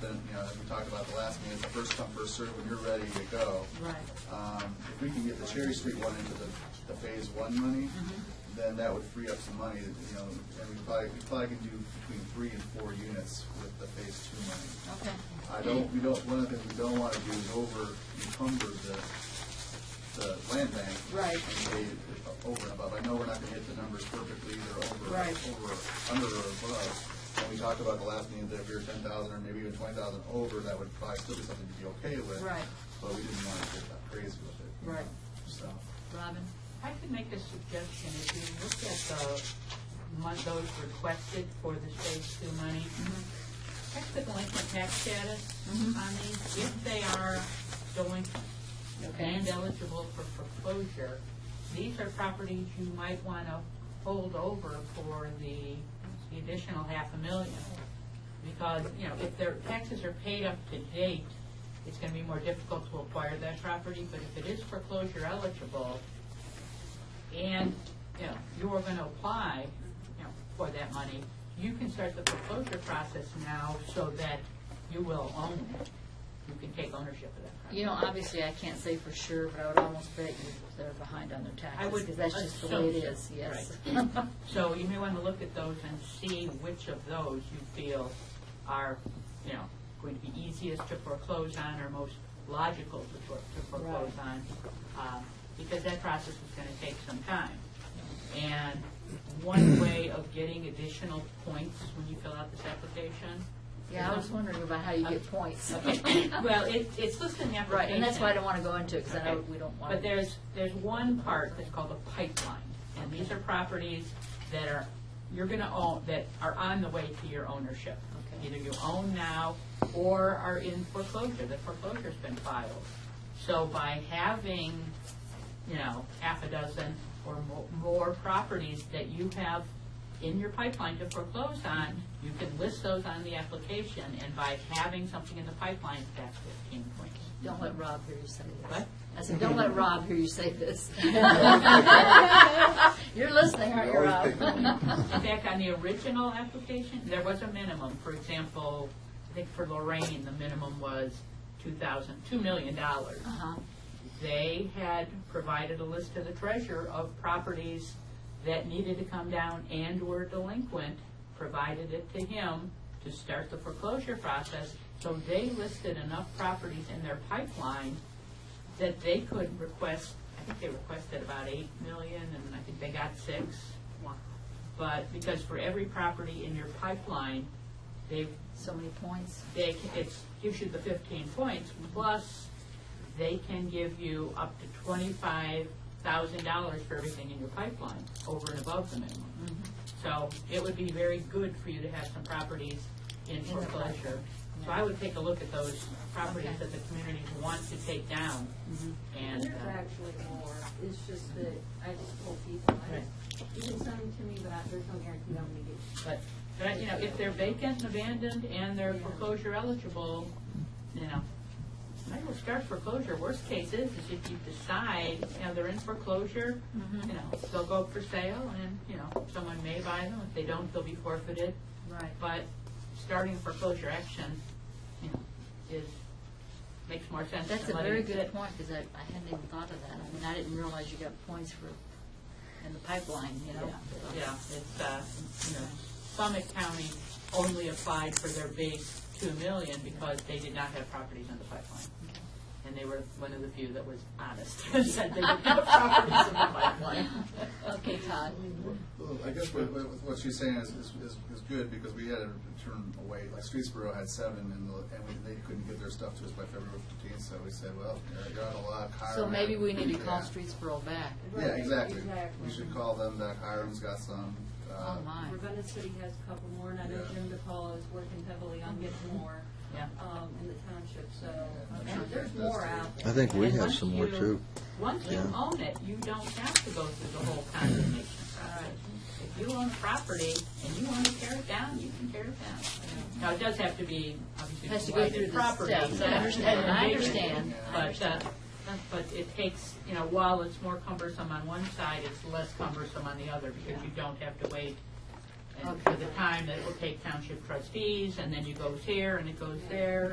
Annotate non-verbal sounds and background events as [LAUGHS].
then, you know, as we talked about the last meeting, it's a first come, first served, when you're ready to go. Right. Um, If we can get the Cherry Street one into the, the phase one money, then that would free up some money, you know, and we probably, we probably can do between three and four units with the phase two money. Okay. I don't, we don't, one of the things we don't want to do is over encumber the, the land bank. Right. And pay it over and above. I know we're not going to hit the numbers perfectly, they're over, Right. over, under or above. And we talked about the last meeting that if we were ten thousand or maybe even twenty thousand over, that would probably still be something to be okay with. Right. But we didn't want to get that crazy with it. you Right. know, So, Robin? I could make a suggestion, if you look at the, mon- those requested for the phase two money, check the delinquent tax status on these, if they are delinquent and eligible for foreclosure, these are properties you might want to hold over for the the additional half a million. Because, you know, if their taxes are paid up to date, it's going to be more difficult to acquire that property, but if it is foreclosure eligible, and, you know, you're gonna apply, you know, for that money, you can start the foreclosure process now so that you will own it. You can take ownership of that property. You know, obviously, I can't say for sure, but I would almost bet you they're behind on their taxes. I would Because that's just the way it assume is, so. yes. So you may wanna look at those and see which of those you feel are, you know, going to be easiest to foreclose on or most logical to for- to foreclose on. um, Because that process is gonna take some time. And one way of getting additional points when you fill out this application. [LAUGHS] Yeah, I was wondering about how you get [LAUGHS] points. Okay, well, it, it's listed in the application. Right, and that's why I don't want to go into it, because I know Okay. we don't want to. But there's, there's one part that's called a pipeline, and these are properties that are, you're gonna own, that are on the way to your ownership. Okay. Either you own now or are in foreclosure, the foreclosure's been filed. So by having, you know, half a dozen or mo- more properties that you have in your pipeline to foreclose on, you can list those on the application, and by having something in the pipeline, that's fifteen points. Don't let Rob hear you say this. What? I said, don't let Rob hear you say [LAUGHS] this. [LAUGHS] You're listening, aren't you, You're Rob? always picking In fact, on the original application, there was a minimum. For example, I think for Lorraine, the minimum was two thousand, two million dollars. Uh-huh. They had provided a list to the treasurer of properties that needed to come down and were delinquent, provided it to him to start the foreclosure process. So they listed enough properties in their pipeline that they could request, I think they requested about eight million, and I think they got six. But because for every property in your pipeline, they, [LAUGHS] So many points. they, it gives you the fifteen points, plus they can give you up to twenty-five thousand dollars for everything in your pipeline, over and above the minimum. Mm-hmm. So it would be very good for you to have some properties in the pipeline, foreclosure. So I would take a look at those properties Okay. Mm-hmm. that the community wants to take down, and, There's uh, actually more, it's just that I just told people, I just, you can send them to me, but I- there's no guarantee I'm gonna get. But, but, you know, if they're vacant and abandoned and they're foreclosure eligible, you know, might as well start foreclosure. Worst case is, is if you decide, you know, they're in foreclosure, Mm-hmm. you know, they'll go up for sale and, you know, someone may buy them. If they don't, they'll be forfeited. Right. But starting foreclosure action, you know, is, makes more sense than That's a letting very it good sit. point, because I, I hadn't even thought of that. I mean, I didn't realize you got points for, in the pipeline, you know? Yeah, it's, uh, you know, Summit County only applied for their base two million because they did not have properties in the pipeline. And they were one of the few that was honest, [LAUGHS] and said they didn't have properties in the pipeline. Okay, Todd. Well, I guess what, what what she's saying is, is, is is good, because we had to turn away, like Streetsboro had seven, and, the- and we- they couldn't get their stuff to us by February fifteenth, so we said, well, you're- you're out of luck. hire So them. maybe we need to call Yeah. Streetsboro back. Yeah, Right, exactly. exactly. We should call them back. Hiram's got some. uh, Oh, my. Ravenna City has a couple more, and I know Yeah. Jim DePaul is working heavily on getting more, Yeah. um, in the township, so, Mm-hmm. I'm and sure there's Jim does more too. out I there. think we And have once some more you- too. Once you Yeah. own it, you don't have to go through the whole condemnation process. If you own a property and you want to tear it down, you can tear it down. Now, it does have to be, obviously, Has to go through divided the property. steps. I understand. I understand. But, uh, but it takes, you know, while it's more cumbersome on one side, it's less cumbersome on the other because you don't have to wait and for the time that it will take township trustees, and then you goes here, and it goes there,